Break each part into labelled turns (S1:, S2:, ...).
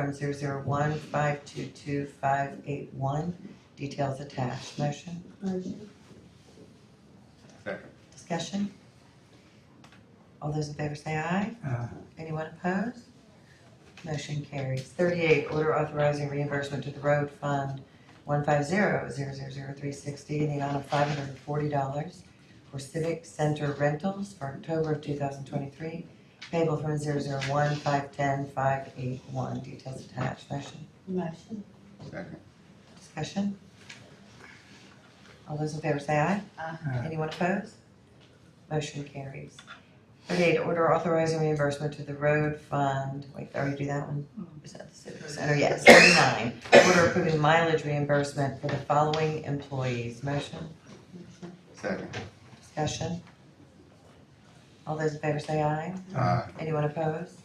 S1: from zero zero one five two two five eight one, details attached. Motion,
S2: Motion.
S3: Second.
S1: discussion? All those in favor say aye.
S4: Aye.
S1: Anyone opposed? Motion carries. Thirty-eight, order authorizing reimbursement to the road fund one five zero zero zero zero three sixty in the amount of five hundred and forty dollars for civic center rentals for October of two thousand twenty-three, payable from zero zero one five ten five eight one, details attached. Motion?
S2: Motion.
S3: Second.
S1: Discussion? All those in favor say aye.
S2: Aye.
S4: Aye.
S1: Anyone opposed? Motion carries. Thirty-eight, order authorizing reimbursement to the road fund, wait, did I already do that one? Is that the civic center? Yes, thirty-nine, order approving mileage reimbursement for the following employees. Motion,
S2: Motion.
S3: Second.
S1: discussion? All those in favor say aye.
S3: Aye.
S1: Anyone opposed?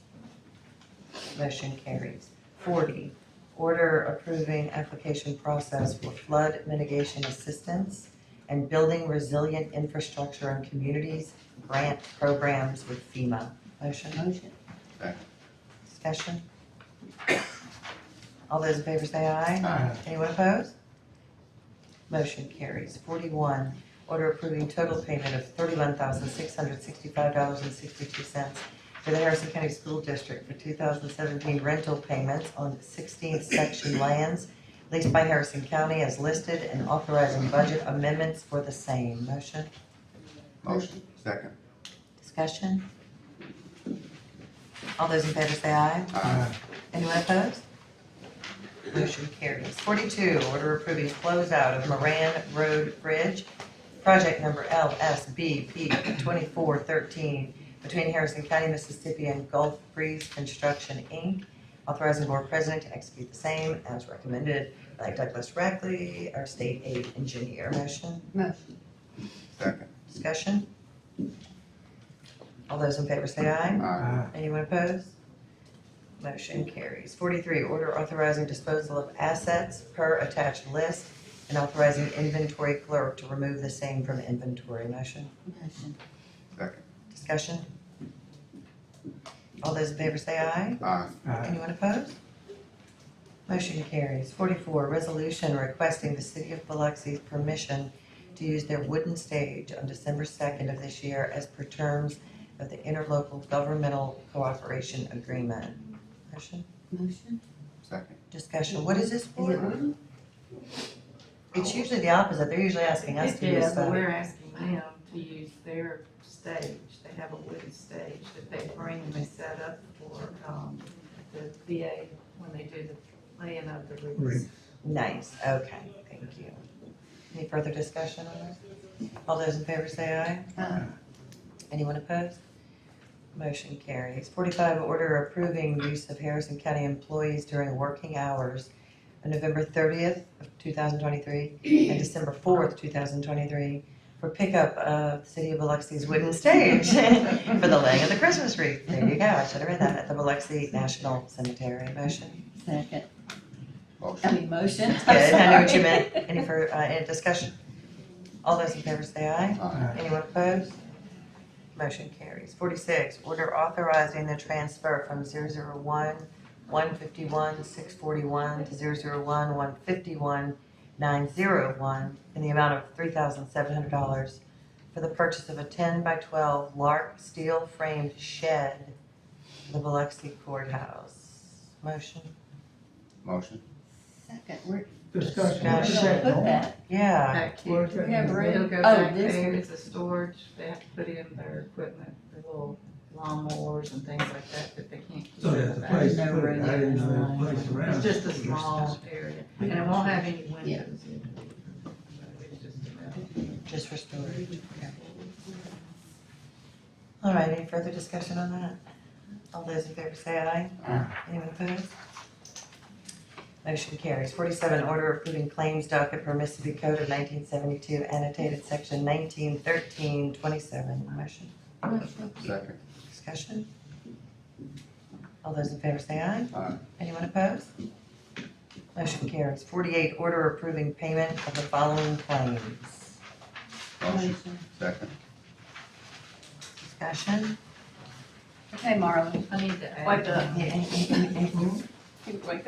S1: Motion carries. Forty, order approving application process for flood mitigation assistance and building resilient infrastructure and communities grant programs with FEMA. Motion,
S2: Motion.
S1: discussion? All those in favor say aye.
S4: Aye.
S1: Anyone opposed? Motion carries. Forty-one, order approving total payment of thirty-one thousand six hundred sixty-five dollars and sixty-two cents to the Harrison County School District for two thousand seventeen rental payments on sixteenth section lands leased by Harrison County as listed and authorizing budget amendments for the same. Motion,
S3: Motion. Second.
S1: discussion? All those in favor say aye.
S3: Aye.
S1: Anyone opposed? Motion carries. Forty-two, order approving closeout of Moran Road Bridge, project number LSBP twenty-four thirteen, between Harrison County, Mississippi and Gulf Breeze Construction, Inc., authorizing board president to execute the same as recommended by Douglas Rackley, our state aid engineer. Motion,
S2: Motion.
S3: Second.
S1: discussion? All those in favor say aye.
S3: Aye.
S4: Aye.
S1: Anyone opposed? Motion carries. Forty-three, order authorizing disposal of assets per attached list and authorizing inventory clerk to remove the same from inventory. Motion,
S2: Motion.
S3: Second.
S1: discussion? All those in favor say aye.
S3: Aye.
S4: Aye.
S1: Anyone opposed? Motion carries. Forty-four, resolution requesting the city of Biloxi's permission to use their wooden stage on December second of this year as per terms of the interlocal governmental cooperation agreement. Motion,
S2: Motion.
S3: Second.
S1: discussion, what is this
S2: Is it
S1: for?
S2: wooden?
S1: It's usually the opposite, they're usually asking us
S5: It
S1: to do
S5: is, but
S1: stuff.
S5: we're asking them to use their stage, they have a wooden stage that they bring and they set up for, um, the VA when they do the laying of the roofs.
S1: Nice, okay, thank you. Any further discussion on this? All those in favor say aye.
S2: Aye.
S1: Anyone opposed? Motion carries. Forty-five, order approving use of Harrison County employees during working hours on November thirtieth of two thousand twenty-three and December fourth, two thousand twenty-three for pickup of the City of Biloxi's wooden stage for the laying of the Christmas wreath. There you go, I should have read that, at the Biloxi National Cemetery. Motion?
S2: Second. I
S3: Motion.
S2: mean, motion. I'm
S1: Good, I know what you
S2: sorry.
S1: meant. Any fur, uh, any discussion? All those in favor say aye.
S3: Aye.
S1: Anyone opposed? Motion carries. Forty-six, order authorizing the transfer from zero zero one, one fifty-one, six forty-one to zero zero one, one fifty-one, nine zero one in the amount of three thousand seven hundred dollars for the purchase of a ten by twelve Lark steel framed shed for the Biloxi courthouse. Motion?
S3: Motion.
S2: Second, we're,
S4: Discussion.
S2: we're
S1: Gosh.
S2: gonna put that.
S1: Yeah,
S5: Back here,
S4: Where's
S2: We have
S4: that?
S2: room.
S5: they'll go
S2: Oh,
S5: back
S2: this
S5: there,
S2: one.
S5: it's a storage, they have to put in their equipment, their little lawnmowers and things like that that they can't keep
S4: So
S5: in the
S4: there's a
S5: back.
S4: place to put it. I didn't know there was a place around.
S5: It's just a
S4: for your
S5: small
S4: stuff.
S5: area, and it won't have any
S2: Yeah.
S5: windows. It's just about-
S1: just for storage, okay. All right, any further discussion on that? All those in favor say aye.
S3: Aye.
S1: Anyone opposed? Motion carries. Forty-seven, order approving claims docket per Mississippi Code of nineteen seventy-two annotated section nineteen thirteen twenty-seven. Motion,
S2: Motion.
S3: Second.
S1: discussion? All those in favor say aye.
S3: Aye.
S1: Anyone opposed? Motion carries. Forty-eight, order approving payment of the following claims.
S3: Motion.
S2: Motion.
S3: Second.
S1: Discussion?
S2: Okay, Marlon.
S5: I need to add.
S2: Wipe it up.
S5: one.
S6: He looked like